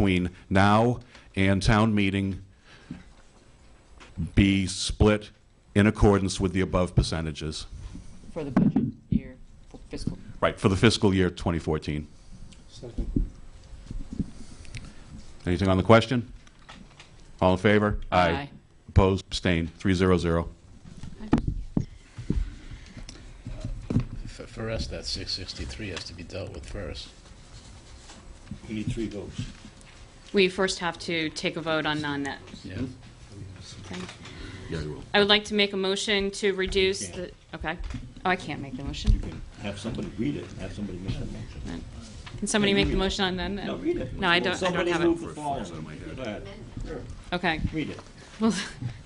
between now and town meeting be split in accordance with the above percentages. for the budget year for fiscal. Right, for the fiscal year 2014. Second. Anything on the question? All in favor? Aye. Opposed, abstained, 300. For, for us, that six sixty-three has to be dealt with first. We need three votes. We first have to take a vote on non-net. Yeah, okay? Yeah, you will. I would like to make a motion to reduce the, okay. Oh, I can't make the motion. Have somebody read it, have somebody make a motion. Can somebody make the motion on then? No, read it. No, I don't, I don't Somebody have move it. the following. Go ahead, Okay. read it. Will,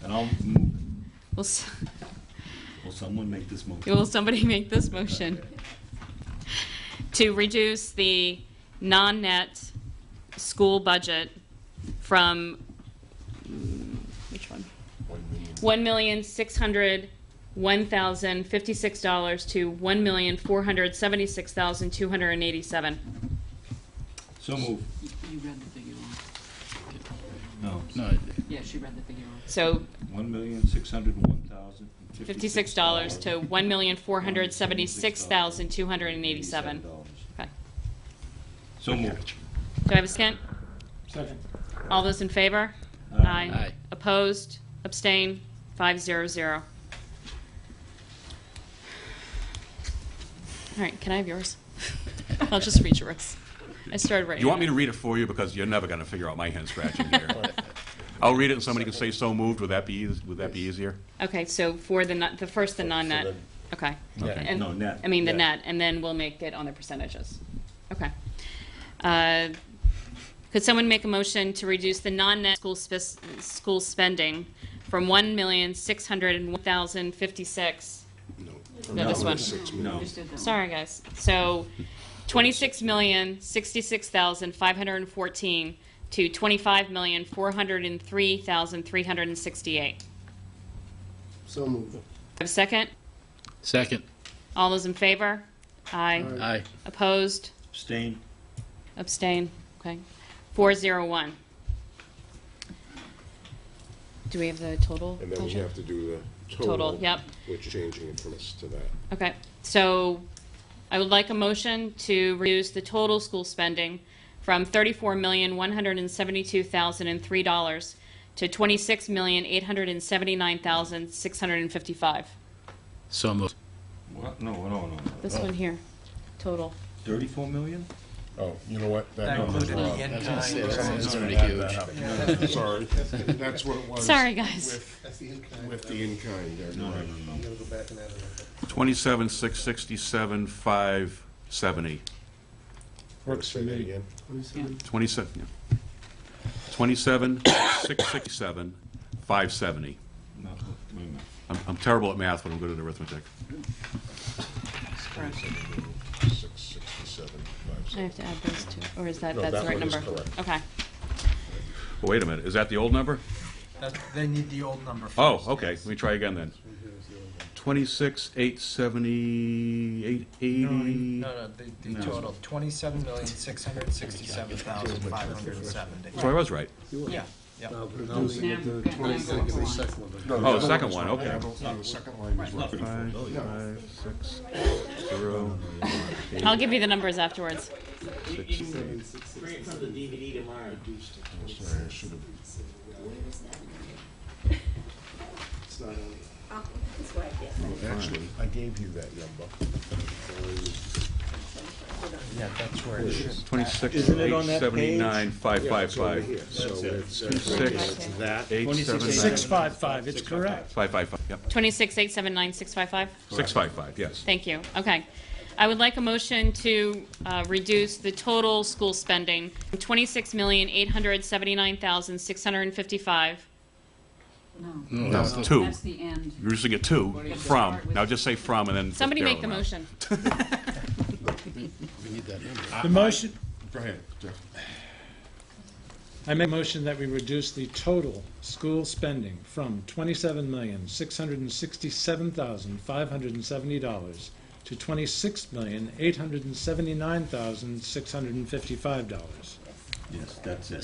And I'll move, will, s- will someone make this motion? will somebody make this motion? To reduce the non-net school budget from, mm, which one? one million six hundred one thousand fifty six dollars to one million four hundred seventy six thousand two hundred and eighty seven. So move. You read the figure wrong. No. no, it- Yeah, she read the figure wrong. So One million, six hundred and one thousand and fifty six dollars to one million four hundred seventy six thousand two hundred and eighty $87. seven. Okay. So moved. Do I have a second? Second. All those in favor? Aye. Aye. Opposed? Abstain? Five zero zero. All right, can I have yours? I'll just read yours. I started writing. You want me it. to read it for you, because you're never going to figure out my hand scratching here. I'll read it, and somebody can say so moved, would that be, eas- would that be easier? Okay, so for the, non- the first, the non-net, okay. And- No, net, I mean, the net. net, and then we'll make it on the percentages. Okay. Uh, Could someone make a motion to reduce the non-net school spes- school spending from one million, six hundred and one thousand, fifty-six? No, this one. No. Just did that one. Sorry, guys. So twenty-six million, sixty-six thousand, five hundred and fourteen to twenty-five million, four hundred and three thousand, three hundred and sixty-eight. So moved. Have a second? second, All those in favor? Aye. aye, Opposed? Abstain. Abstain? Okay. 401. Do we have the total? And then we Tasha? have to do the total. Total, yep. Which changing it from us to that. Okay, so I would like a motion to reduce the total school spending from thirty-four million, one hundred and seventy-two thousand and three dollars to twenty-six million, eight hundred and seventy-nine thousand, six hundred and fifty-five. so moved. What? No, no, no, no. This one here, total. Thirty-four million? Oh, you know what? That number's wrong. I was gonna say, That's that's pretty Add huge. that up. Sorry. That's what it was. Sorry, guys. With with the in-kind, there, No, no, right. no, no. 27, 667, 570. Works for me. again. 27, yeah. 27, 667, 570. No, wait a minute. I'm- I'm terrible at math, but I'm good at arithmetic. Six sixty-seven, I five seven. have to add those two, or is that, No, that's that the right one is number? correct. Okay, Well, Wait a minute, is that the old number? That, they need the old number first. Oh, okay, let me try again then. 26, 870, No, 880. no, the, the total, twenty-seven million, six hundred sixty-seven thousand, five hundred and seventy. So I was right. Yeah, yeah. Oh, the second one, okay. Oh, I'll give you the numbers afterwards. Actually, I gave you that number. Yeah, that's where it is. 26, Isn't it on that 879, It's over here. 555. So it's. uh, Six, That. eight, seven, nine, 655, it's correct. five, five, five, yep. Twenty-six, eight, seven, nine, six, five, five? 655, yes. Thank you. Okay. I would like a motion to uh, reduce the total school spending from $26,879,655. No, No, it's two. that's the end. You're just gonna get two, from. Now just say from and then. just Somebody barrel make the them out. motion. We need that number. The motion, Go ahead, Jeff. I make a motion that we reduce the total school spending from $27,667,570 to $26,879,655. Yes, that's it.